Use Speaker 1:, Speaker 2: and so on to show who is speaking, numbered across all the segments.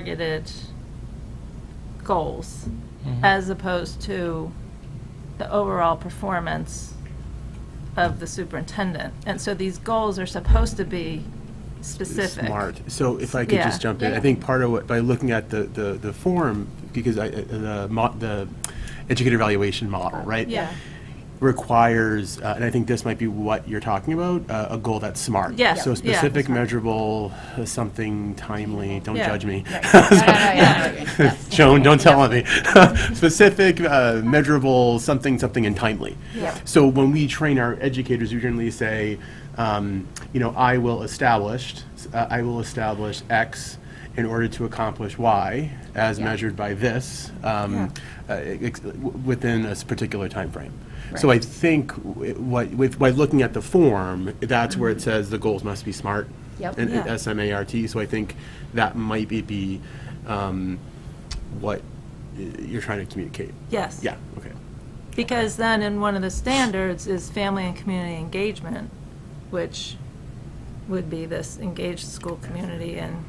Speaker 1: targeted goals as opposed to the overall performance of the superintendent. And so these goals are supposed to be specific.
Speaker 2: Smart. So if I could
Speaker 1: Yeah.
Speaker 2: just jump in, I
Speaker 1: Yeah.
Speaker 2: think part of what, by looking at the, the, the form, because I, uh, the, mo- the educator evaluation model, right?
Speaker 1: Yeah.
Speaker 2: Requires, uh, and I think this might be what you're talking about, uh, a goal that's smart.
Speaker 1: Yeah.
Speaker 2: So
Speaker 1: Yeah.
Speaker 2: specific, measurable, uh, something timely, don't
Speaker 1: Yeah.
Speaker 2: judge me.
Speaker 3: yeah.
Speaker 2: Joan, don't tell on me. Specific, uh, measurable, something, something, and timely.
Speaker 3: Yep.
Speaker 2: So when we train our educators, we generally say, um, you know, I will establish, uh, I will establish X in order to accomplish Y as
Speaker 3: Yeah.
Speaker 2: measured by this um, uh, ex- w- within a s- particular timeframe. So I
Speaker 3: Right.
Speaker 2: think w- what, with, by looking at the form, that's where it says the goals must be smart.
Speaker 3: Mm-hmm. Yep.
Speaker 2: And
Speaker 1: Yeah.
Speaker 2: S M A R T, so I think that might be, be, um, what uh, you're trying to communicate.
Speaker 1: Yes.
Speaker 2: Yeah, okay.
Speaker 1: Because then in one of the standards is family and community engagement, which would be this engaged school community and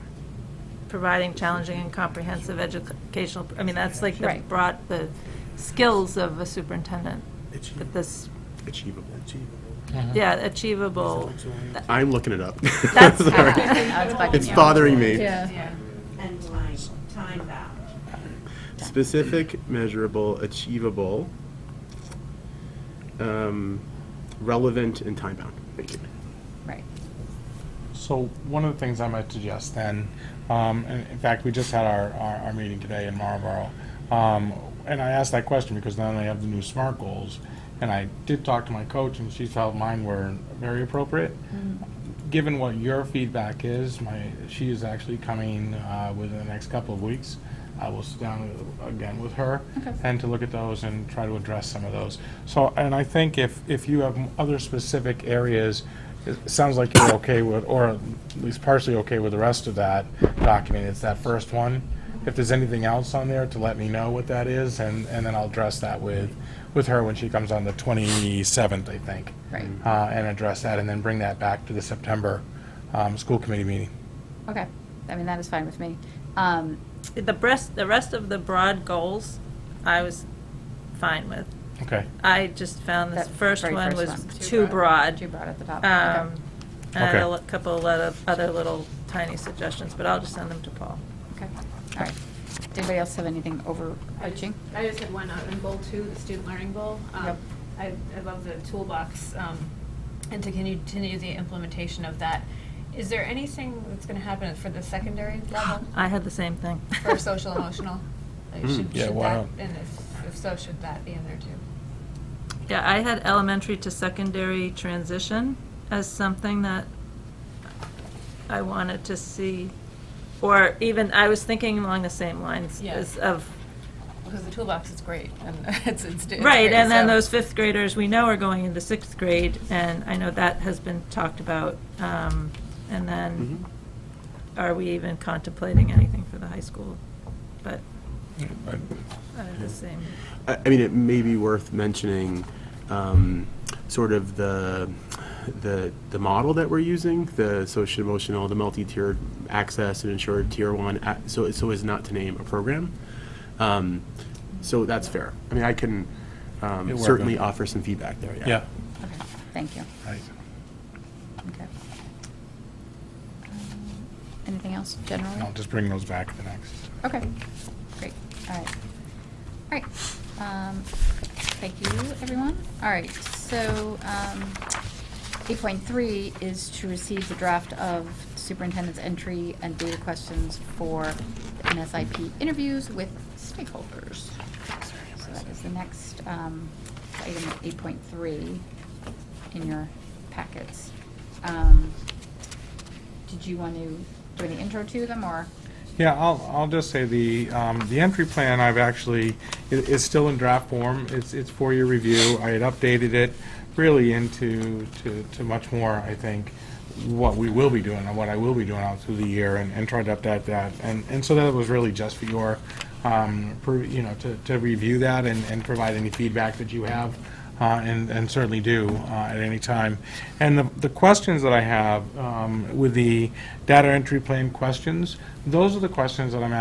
Speaker 1: providing challenging and comprehensive educational, I mean, that's like the
Speaker 3: Right.
Speaker 1: broad, the skills of a superintendent. But this,
Speaker 2: Achievable.
Speaker 1: yeah, achievable,
Speaker 2: I'm looking it up.
Speaker 1: That's-
Speaker 2: Sorry. It's bothering me.
Speaker 4: and time, time bound.
Speaker 2: Specific, measurable, achievable, um, relevant, and time-bound. Thank you.
Speaker 3: Right.
Speaker 5: So one of the things I might suggest then, um, and in fact, we just had our, our, our meeting today in Marlboro. Um, and I asked that question because now they have the new SMART goals. And I did talk to my coach and she felt mine were very appropriate. Given what your feedback is, my, she is actually coming, uh, within the next couple of weeks. I will sit down again with her and to look at those and try to address some of those. So, and I think if, if you have other specific areas, it sounds like you're okay with, or at least partially okay with the rest of that document, it's that first one. If there's anything else on there, to let me know what that is, and, and then I'll address that with, with her when she comes on the 27th, I think.
Speaker 3: Right.
Speaker 5: Uh, And address that, and then bring that back to the September um, school committee meeting.
Speaker 3: Okay. I mean, that is fine with me. Um,
Speaker 1: the rest, the rest of the broad goals, I was fine with.
Speaker 5: Okay.
Speaker 1: I just found Um, this
Speaker 3: that
Speaker 1: first
Speaker 3: very
Speaker 1: one was
Speaker 3: one's
Speaker 1: too broad.
Speaker 3: Too broad at the top.
Speaker 1: Um, I had a
Speaker 5: Okay.
Speaker 1: li- couple of other- other little tiny suggestions, but I'll just send them to Paul.
Speaker 3: Okay. Okay. All right. Anybody else have anything overarching?
Speaker 6: I just had one on on goal two, the student learning goal. Um,
Speaker 3: Yep.
Speaker 6: I, I love the toolbox, um, and to continue, continue the implementation of that. Is there anything that's gonna happen for the secondary level
Speaker 1: I had the same thing.
Speaker 6: for social emotional? Like,
Speaker 2: Mm,
Speaker 6: should-
Speaker 5: yeah,
Speaker 6: should
Speaker 5: why
Speaker 6: that-
Speaker 5: not?
Speaker 6: And if, if so, should that be in there too?
Speaker 1: Yeah, I had elementary to secondary transition as something that I wanted to see, or even, I was thinking along the same lines
Speaker 6: Yeah.
Speaker 1: as of,
Speaker 6: Because the toolbox is great and it's, it's. it's
Speaker 1: right,
Speaker 6: great,
Speaker 1: and then
Speaker 6: so-
Speaker 1: those fifth graders we know are going into sixth grade, and I know that has been talked about. um, And then,
Speaker 2: Mm-hmm.
Speaker 1: are we even contemplating anything for the high school? But I had the same.
Speaker 2: I I mean, it may be worth mentioning um, sort of the, the, the model that we're using, the social emotional, the multi-tiered access and ensured tier one, a- so, so as not to name a program. Um, So that's fair. I mean, I can um,
Speaker 5: You're welcome.
Speaker 2: certainly offer some feedback there, yeah.
Speaker 5: Yeah.
Speaker 3: Okay. Thank you.
Speaker 5: Right.
Speaker 3: Okay. Um, Anything else generally?
Speaker 5: I'll just bring those back for next.
Speaker 3: Okay, great, all right. All right, um, thank you, everyone. All right, so, um, eight point three is to receive the draft of superintendent's entry and data questions for the NSIP interviews with stakeholders. So that is the next, um, item eight point three in your packets. Um, did you want to do any intro to them, or?
Speaker 5: Yeah, I'll, I'll just say the, um, the entry plan I've actually, i- is still in draft form. It's, it's for your review. I had updated it really into, to, to much more, I think, what we will be doing and what I will be doing out through the year and, and tried to update that. And, and so that was really just for your, um, per- you know, to, to review that and, and provide any feedback that you have. uh, and and certainly do uh, at any time. And the the questions that I have um, with the data entry plan questions, those are the questions that I'm asking